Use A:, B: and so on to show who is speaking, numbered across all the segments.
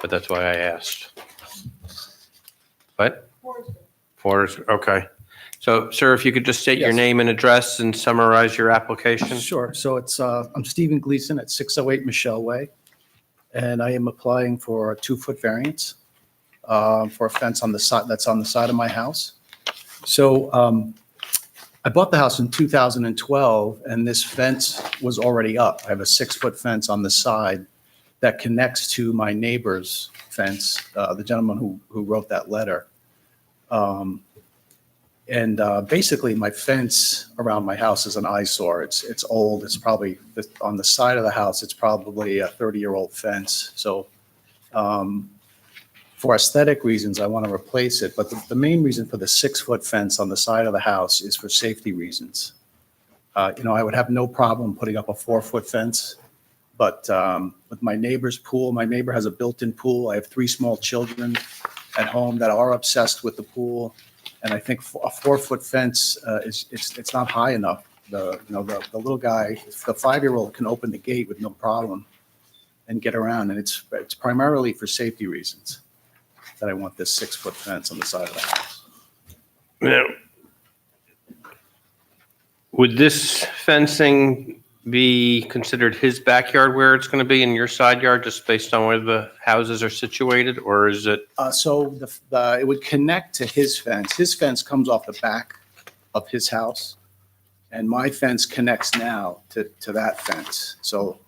A: but that's why I asked. What? Forrester, okay. So, sir, if you could just state your
B: Yes.
A: name and address and summarize your application?
B: Sure. So it's, uh, I'm Stephen Gleason at 608 Michelle Way, and I am applying for a two-foot variance uh, for a fence on the side, that's on the side of my house. So um, I bought the house in 2012, and this fence was already up. I have a six-foot fence on the side that connects to my neighbor's fence, uh, the gentleman who who wrote that letter. And uh, basically, my fence around my house is an eyesore. It's, it's old. It's probably, on the side of the house, it's probably a 30-year-old fence. So um, for aesthetic reasons, I want to replace it. But the, the main reason for the six-foot fence on the side of the house is for safety reasons. Uh, You know, I would have no problem putting up a four-foot fence. But um, with my neighbor's pool, my neighbor has a built-in pool. I have three small children at home that are obsessed with the pool. And I think fo- a four-foot fence uh, is, it's, it's not high enough. The, you know, the, the little guy, the five-year-old can open the gate with no problem and get around. And it's, it's primarily for safety reasons that I want this six-foot fence on the side of the house.
A: Now, would this fencing be considered his backyard where it's going to be in your side yard, just based on where the houses are situated? Or is it,
B: Uh, so the, the, it would connect to his fence. His fence comes off the back of his house. And my fence connects now to, to that fence. So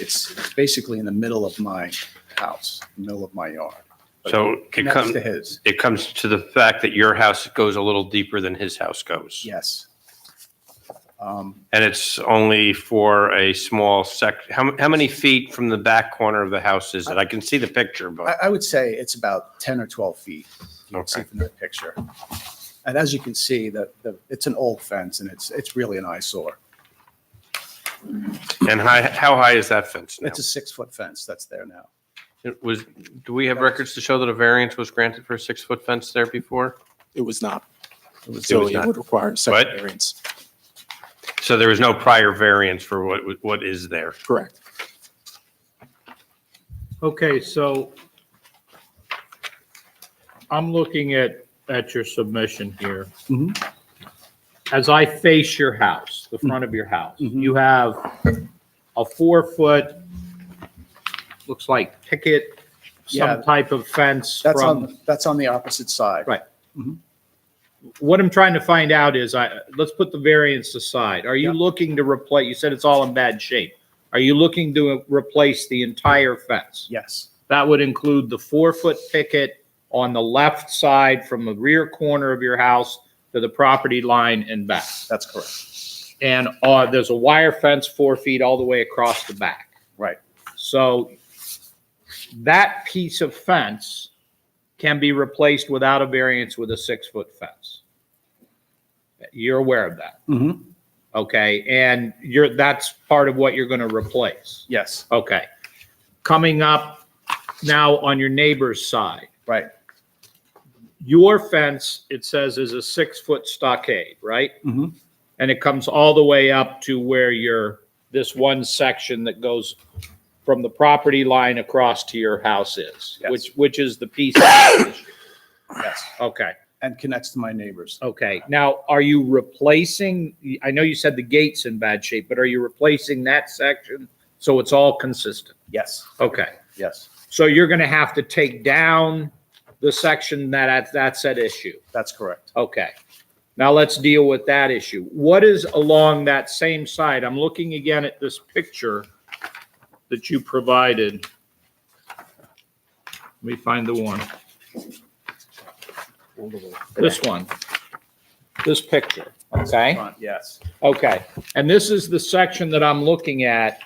B: it's it's basically in the middle of my house, middle of my yard.
A: so it
B: Connects
A: comes,
B: to his,
A: it comes to the fact that your house goes a little deeper than his house goes?
B: yes. Um,
A: And it's only for a small sec, how, how many feet from the back corner of the house is it? I can see the picture,
B: I,
A: but,
B: I would say it's about 10 or 12 feet. You can see
A: okay.
B: from the picture. And as you can see, the, the, it's an old fence and it's, it's really an eyesore.
A: And how, how high is that fence now?
B: It's a six-foot fence that's there now.
A: It was, do we have records to show that a variance was granted for a six-foot fence there before?
C: It was not.
A: was
C: So it
A: not.
C: would require a second
A: What?
C: variance.
A: So there was no prior variance for what, what is there?
C: Correct.
D: Okay, so I'm looking at, at your submission here.
B: Mhm.
D: As I face your house, the front of your house,
B: Mhm.
D: you have a four-foot, looks like picket,
B: Yeah.
D: some type of fence
B: That's
D: from,
B: on, that's on the opposite side.
D: Right. what I'm trying to find out is I, let's put the variance aside. Are you
B: Yeah.
D: looking to replace, you said it's all in bad shape. Are you looking to replace the entire fence?
B: Yes,
D: That would include the four-foot picket on the left side from the rear corner of your house to the property line and back.
B: that's correct.
D: And uh, there's a wire fence four feet all the way across the back.
B: Right.
D: So that piece of fence can be replaced without a variance with a six-foot fence. You're aware of that,
B: Mm-hmm.
D: okay? And you're, that's part of what you're going to replace.
B: Yes,
D: Okay. Coming up now on your neighbor's side,
B: right.
D: your fence, it says is a six-foot stockade, right?
B: Mhm.
D: And it comes all the way up to where your, this one section that goes from the property line across to your house is,
B: Yes.
D: which, which is the piece. that's the issue.
B: Yes,
D: Okay,
B: and connects to my neighbors.
D: okay. Now, are you replacing, I know you said the gate's in bad shape, but are you replacing that section so it's all consistent?
B: Yes,
D: Okay.
B: yes,
D: So you're going to have to take down the section that, that's at issue.
B: that's correct.
D: Okay. Now let's deal with that issue. What is along that same side? I'm looking again at this picture that you provided. Let me find the one. This one. This picture, okay?
B: Front, Yes,
D: Okay, and this is the section that I'm looking at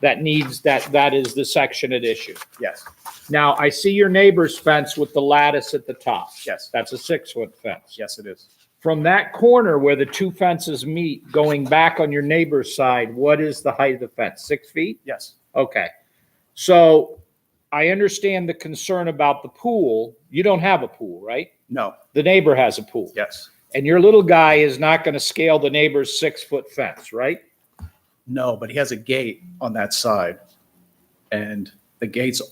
D: that needs, that, that is the section at issue.
B: yes,
D: Now, I see your neighbor's fence with the lattice at the top.
B: Yes.
D: That's a six-foot fence.
B: yes, it is.
D: From that corner where the two fences meet, going back on your neighbor's side, what is the height of the fence? Six feet?
B: Yes,
D: Okay. So I understand the concern about the pool. You don't have a pool, right?
B: no,
D: The neighbor has a pool.
B: yes.
D: And your little guy is not going to scale the neighbor's six-foot fence, right?
B: No, but he has a gate on that side. And the gate's